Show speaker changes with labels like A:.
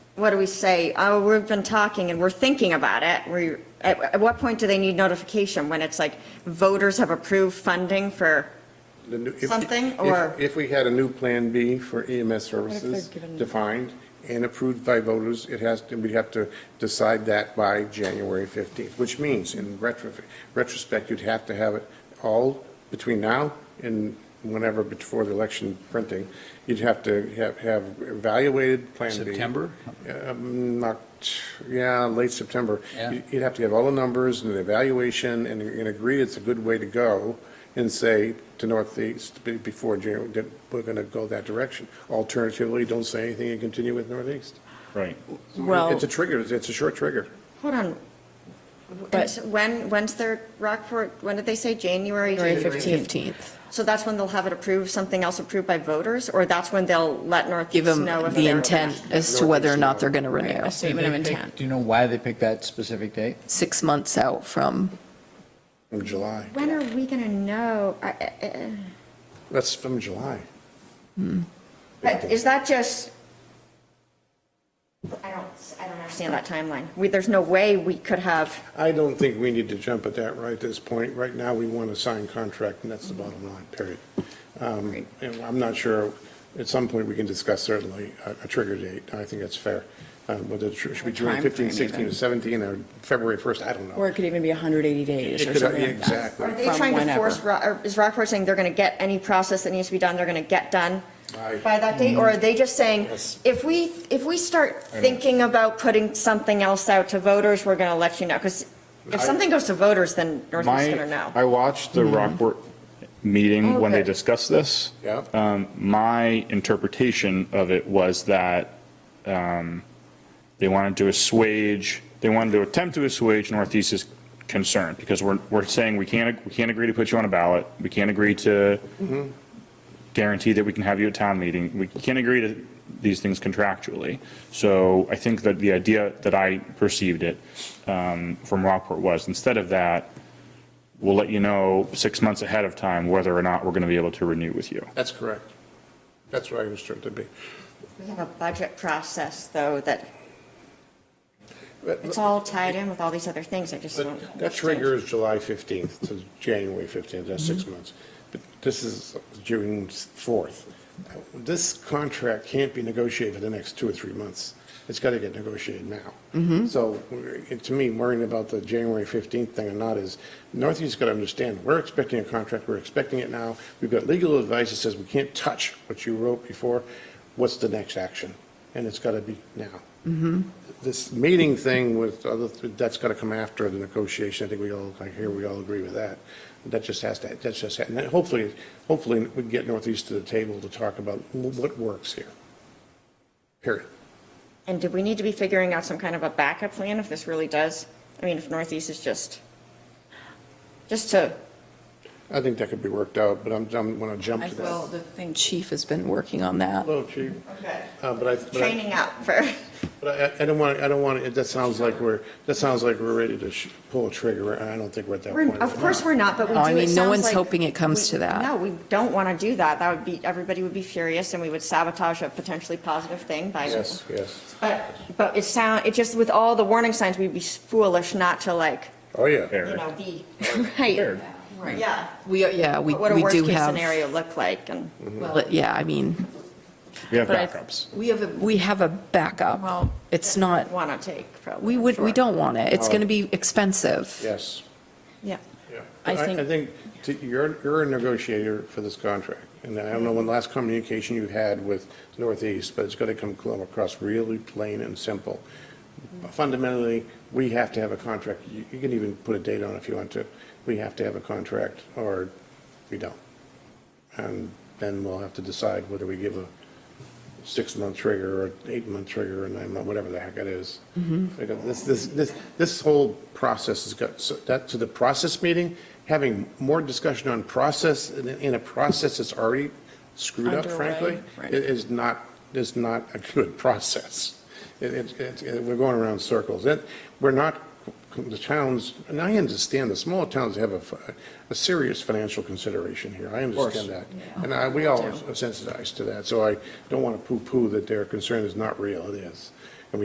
A: what do we say? Oh, we've been talking and we're thinking about it. We, at, at what point do they need notification? When it's like voters have approved funding for,
B: The new- if-
A: Something,
B: if-
A: or-
B: If we had a new Plan B for EMS services
C: given-
B: defined and approved by voters, it has, to. we'd have to decide that by January 15th, which means in retro- retrospect, you'd have to have it all between now and whenever before the election printing. You'd have to have, have evaluated Plan B.
D: September?
B: Um, Not, yeah, late September.
D: Yeah.
B: You- You'd have to have all the numbers and an evaluation and, and agree it's a good way to go and say to Northeast be- before January, that we're going to go that direction. Alternatively, don't say anything and continue with Northeast.
E: Right.
C: Well,
B: It's a trigger, it's a short trigger.
A: hold on.
C: But-
A: When, when's their Rockport, when did they say? January?
C: January 15th.
A: So that's when they'll have it approved, something else approved by voters? Or that's when they'll let
C: Give
A: Northeast
C: them
A: know if
C: the
A: they're-
C: intent as to whether or not they're going to renew,
F: A statement of intent.
D: Do you know why they picked that specific date?
C: six months out from,
B: From July.
A: When are we going to know? I- I- I-
B: That's from July.
A: But is that just? I don't, I don't understand that timeline. We, there's no way we could have,
B: I don't think we need to jump at that right this point. Right now, we want to sign contract, and that's the
F: Mm-hmm.
B: bottom line, period. Um, And I'm not sure, at some point, we can discuss certainly a a trigger date. I think that's fair. Um, Whether it should be June
F: Or
B: 15,
F: timeframe
B: 16, or
F: even.
B: 17, or February 1st, I don't know.
F: Or it could even be 180 days
B: It
F: or
B: could-
F: something
B: yeah,
F: like that.
B: Exactly.
A: are they
F: From
A: trying to
F: whenever.
A: force, Ro- or is Rockport saying they're going to get any process that needs to be done, they're going to get done
B: Aye.
A: by that date? Or are they just saying,
B: Yes.
A: if we, if we start thinking about putting something else out to voters, we're going to let you know? Because if
B: I-
A: something goes to voters, then Northeast's going to
E: My,
A: know. Mm-hmm.
E: I watched the Rockport meeting when they
A: Okay.
E: discussed this.
B: Yeah.
E: Um, My interpretation of it was that um, they wanted to assuage, they wanted to attempt to assuage Northeast's concern, because we're, we're saying we can't, we can't agree to put you on a ballot, we can't agree to guarantee that we can have you at town meeting. We can't agree to these things contractually. So I think that the idea that I perceived it um, from Rockport was, instead of that, we'll let you know six months ahead of time whether or not we're going to be able to renew with you.
B: That's correct. That's what I understood it to be.
A: We have a budget process, though, that
B: But-
A: it's all tied in with all these other things, I just don't.
B: But that
A: understand.
B: trigger is July 15th to January 15th, that's six months. But this is June 4th. This contract can't be negotiated for the next two or three months. It's got to get negotiated now. So we're- it- to me, worrying about the January 15th thing or not is, Northeast got to understand, we're expecting a contract, we're expecting it now. We've got legal advice that says we can't touch what you wrote before. What's the next action? And it's got to be now this meeting thing with other, that's got to come after the negotiation. I think we all, I hear we all agree with that. That just has to, that's just, and then hopefully, hopefully we can get Northeast to the table to talk about what works here. Period.
A: And do we need to be figuring out some kind of a backup plan if this really does? I mean, if Northeast is just, just to,
B: I think that could be worked out, but I'm, I'm going to jump to
C: well,
B: that.
C: the thing, chief has been working on that.
B: Hello, chief. Uh, But I, but I,
A: training up for,
B: but I I don't want, I don't want, that sounds like we're, that sounds like we're ready to sh- pull a trigger. and I don't think we're at that
A: We're-
B: point.
A: of course we're not, but we do.
C: No, Oh, I
A: it
C: mean, no
A: sounds
C: one's
A: like
C: hoping it comes
A: we-
C: to that.
A: No, we don't want to do that. That would be, everybody would be furious and we would sabotage a potentially positive thing by.
B: Yes, yes.
A: But, but it sound, it just, with all the warning signs, we'd be foolish not to like,
B: Oh, yeah.
A: you
E: Fair.
A: know, be, right? Yeah.
C: We, yeah, we,
A: What a
C: we do
A: worst-case
C: have,
A: scenario look like and.
C: well, yeah, I mean,
E: We have
C: But I-
E: backups.
C: we have, a we have a backup.
F: Well-
C: It's not,
A: want to take, probably.
C: we would, we
A: Sure.
C: don't want it. It's
B: Oh.
C: going to be expensive.
B: Yes.
A: Yeah.
C: I
B: I
C: think-
B: I think to- you're, you're a negotiator for this contract, and I don't know when the last communication you had with Northeast, but it's going to come cl- across really plain and simple. Fundamentally, we have to have a contract. You you can even put a date on it if you want to. We have to have a contract, or we don't. And then we'll have to decide whether we give a six-month trigger or eight-month trigger or nine-month, whatever the heck it is. Because This, this, this, this whole process has got, so that, to the process meeting, having more discussion on process in, in a process that's already screwed up, frankly, i-
F: right.
B: is not, is not a good process. It, it, it's- it- we're going around circles. It, we're not, the towns, and I understand, the small towns have a, f- a serious financial consideration here. I understand that. And I, we all are sensitized to that, so I don't want to poo-poo that their concern is not real, it is.